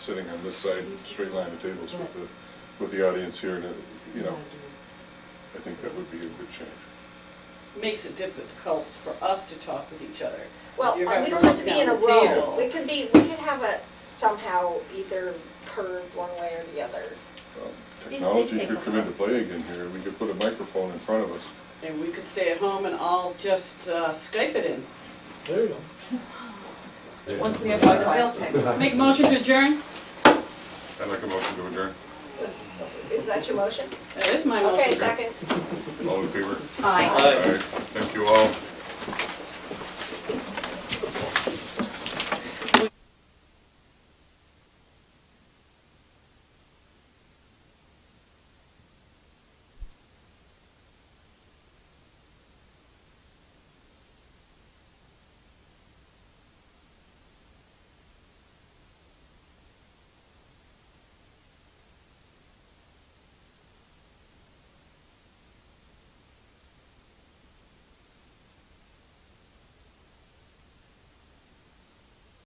sitting on this side, straight line of tables with the, with the audience here, and, uh, you know, I think that would be a good change. makes it difficult for us to talk with each other. Well, uh, You're we don't gonna have to be in a break down the row. table. We could be, we could have it somehow either curved one way or the other. Um, These- these Technology could people come into have play space. again here, we could put a microphone in front of us. And we could stay at home and all just uh, Skype it in. There you go. Once we have our real Make motion to adjourn? I'd like a motion to adjourn. Is- Is that your motion? That is my motion. Okay, second. All in favor? Aye. Aye. Thank you all.